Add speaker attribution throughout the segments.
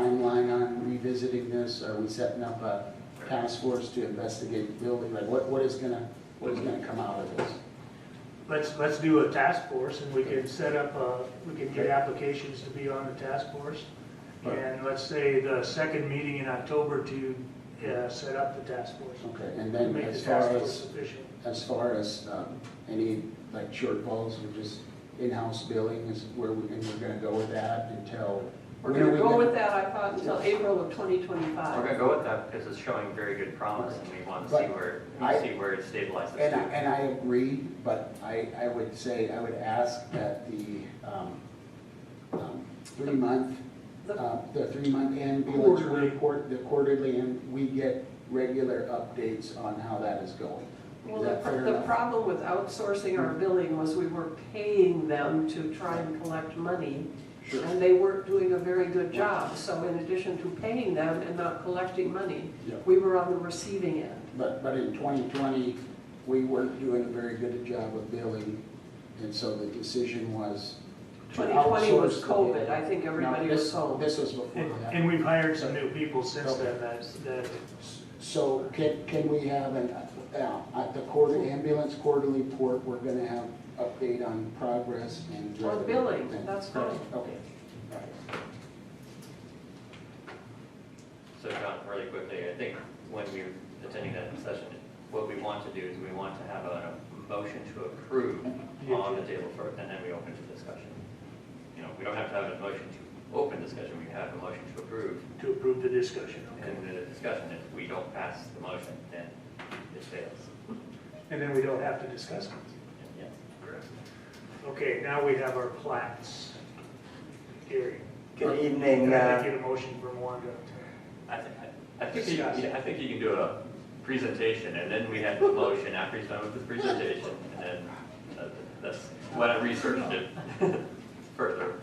Speaker 1: timeline on revisiting this? Are we setting up a task force to investigate the building? Like, what, what is gonna, what is gonna come out of this?
Speaker 2: Let's, let's do a task force and we can set up, uh, we can get applications to be on the task force. And let's say the second meeting in October to, uh, set up the task force.
Speaker 1: Okay, and
Speaker 2: to
Speaker 1: then
Speaker 2: Make the
Speaker 1: as far
Speaker 2: task force
Speaker 1: as,
Speaker 2: official.
Speaker 1: as far as, um, any, like, shortfalls or just in-house billing is where we, and we're gonna go with that until?
Speaker 3: We're
Speaker 1: when are
Speaker 3: gonna
Speaker 1: we
Speaker 3: go with that, I thought, until April of
Speaker 4: We're
Speaker 3: 2025.
Speaker 4: gonna go with that because it's showing very good promise and we want to see
Speaker 1: But
Speaker 4: where,
Speaker 1: I-
Speaker 4: we see where it stabilizes
Speaker 1: And I,
Speaker 4: to.
Speaker 1: and I agree, but I, I would say, I would ask that the, um, um, three-month,
Speaker 3: The-
Speaker 1: uh, the three-month ambulance
Speaker 2: Quarterly.
Speaker 1: report, the quarterly, and we get regular updates on how that is going.
Speaker 3: Well,
Speaker 1: Is that
Speaker 3: the
Speaker 1: fair
Speaker 3: the
Speaker 1: enough?
Speaker 3: problem with outsourcing our billing was we were paying them to try and collect money,
Speaker 1: Sure.
Speaker 3: and they weren't doing a very good job. So in addition to paying them and not collecting money,
Speaker 1: Yeah.
Speaker 3: we were on the receiving end.
Speaker 1: But, but in 2020, we weren't doing a very good job of billing, and so the decision was to
Speaker 3: 2020 was
Speaker 1: outsource the
Speaker 3: COVID,
Speaker 1: billing.
Speaker 3: I think everybody
Speaker 1: No,
Speaker 3: was
Speaker 1: this-
Speaker 3: sold.
Speaker 1: This was before
Speaker 2: And,
Speaker 1: that.
Speaker 2: and we've hired some new people since then that, that,
Speaker 1: So can, can we have an, uh, at the quarter, ambulance quarterly report, we're gonna have update on progress and.
Speaker 3: Or billing, that's fine.
Speaker 1: Okay, all right.
Speaker 4: So John, really quickly, I think when we we're attending that session, what we want to do is we want to have a motion to approve on the table first and then we open to discussion. You know, we don't have to have a motion to open discussion, we have a motion to approve
Speaker 2: to approve the discussion. okay?
Speaker 4: and the discussion, if we don't pass the motion, then it fails.
Speaker 2: And then we don't have to discuss it.
Speaker 4: Yes, correct.
Speaker 2: Okay, now we have our plats. Gary,
Speaker 5: Good
Speaker 2: can
Speaker 5: evening.
Speaker 2: I
Speaker 5: uh,
Speaker 2: get a motion from Wanda?
Speaker 4: I thi- I- I think, you- I think you can do a presentation, and then we have the motion after he's done with his presentation, and then uh, that's what I researched it further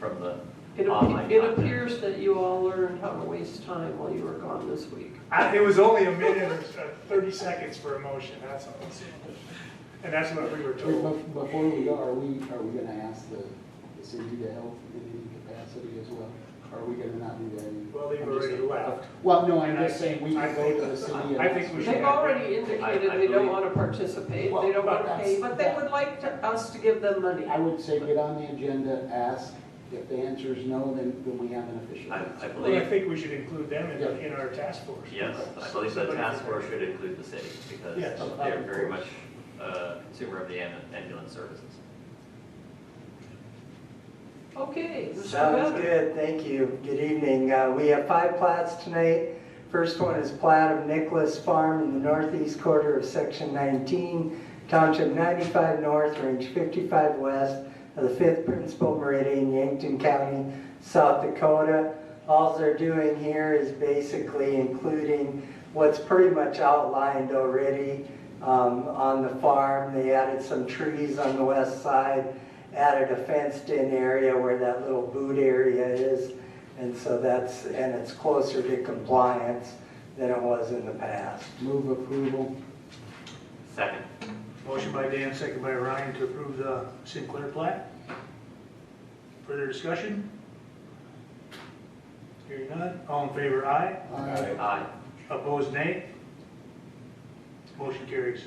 Speaker 4: from
Speaker 3: It
Speaker 4: the online
Speaker 3: ap- it
Speaker 4: content.
Speaker 3: appears that you all learned how to waste time while you were gone this week.
Speaker 2: I- It was only a minute or so- 30 seconds for a motion, that's all. And that's what we were
Speaker 1: Wait, bef-
Speaker 2: told.
Speaker 1: Before we go, are we, are we gonna ask the the city to help in any capacity as well? Are we gonna not do that?
Speaker 2: Well, they've
Speaker 1: I'm just
Speaker 2: already
Speaker 1: saying-
Speaker 2: left.
Speaker 1: Well, no, I'm
Speaker 2: And I-
Speaker 1: just saying, we
Speaker 2: I
Speaker 1: can go to the
Speaker 2: think-
Speaker 1: city and.
Speaker 2: I think
Speaker 1: ask-
Speaker 2: we should-
Speaker 3: They've already indicated
Speaker 4: I- I
Speaker 3: they don't
Speaker 4: believe-
Speaker 3: want to participate,
Speaker 1: Well,
Speaker 3: they don't want
Speaker 1: but
Speaker 3: to pay,
Speaker 1: that's-
Speaker 3: but they would like to- us to give them money.
Speaker 1: I would say get on the agenda, ask, if the answer is no, then, then we have an official.
Speaker 4: I
Speaker 1: answer.
Speaker 4: I
Speaker 2: Well, I
Speaker 4: believe,
Speaker 2: think we should include them in, in our task force.
Speaker 4: yes, I believe the
Speaker 2: Somebody-
Speaker 4: task force should include the city, because
Speaker 2: Yes.
Speaker 4: they're very much a consumer of the am- ambulance services.
Speaker 3: Okay, Mr.
Speaker 5: Sounds
Speaker 3: Webb.
Speaker 5: good, thank you. Good evening. Uh, We have five plats tonight. First one is plat of Nicholas Farm in the northeast quarter of Section 19, Township 95 North, Range 55 West of the 5th Principal Meridian, Yankton County, South Dakota. All they're doing here is basically including what's pretty much outlined already um, on the farm. They added some trees on the west side, added a fenced-in area where that little boot area is. And so that's, and it's closer to compliance than it was in the past.
Speaker 1: Move approval.
Speaker 4: Second,
Speaker 2: Motion by Dan, second by Ryan to approve the Sinclair plat. Further discussion? Hearing none, all in favor, aye.
Speaker 1: Aye.
Speaker 4: aye.
Speaker 2: Opposed, nay. Motion carries.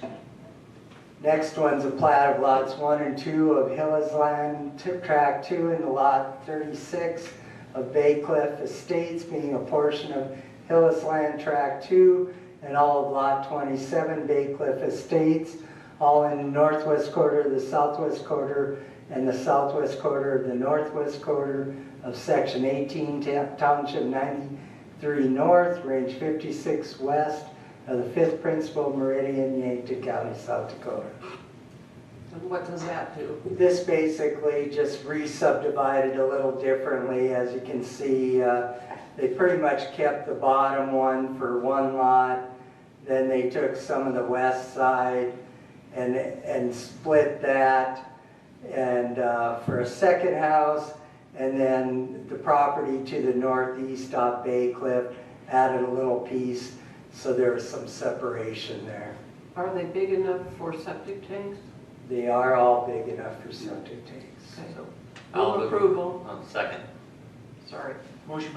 Speaker 5: Next one's a plat of lots one and two of Hillis Land, Tip Track Two and the Lot Thirty-six of Bay Cliff Estates being a portion of Hillis Land Track Two and all of Lot Twenty-seven Bay Cliff Estates, all in the northwest quarter, the southwest quarter, and the southwest quarter of the northwest quarter of Section eighteen, Ta- Township ninety-three North, Range fifty-six West, of Uh, the fifth principal meridian, Yankton County, South Dakota.
Speaker 3: And what does that do?
Speaker 5: This basically just re-subdivided a little differently, as you can see, uh, they pretty much kept the bottom one for one lot, then they took some of the west side and, and split that and, uh, for a second house, and then the property to the northeast off Bay Cliff added a little piece, so there was some separation there.
Speaker 3: Are they big enough for septic tanks?
Speaker 5: They are all big enough for septic tanks.
Speaker 3: Okay.
Speaker 4: So,
Speaker 3: Move
Speaker 4: I'll move-
Speaker 3: approval.
Speaker 4: um, Second.
Speaker 3: Sorry.
Speaker 2: Motion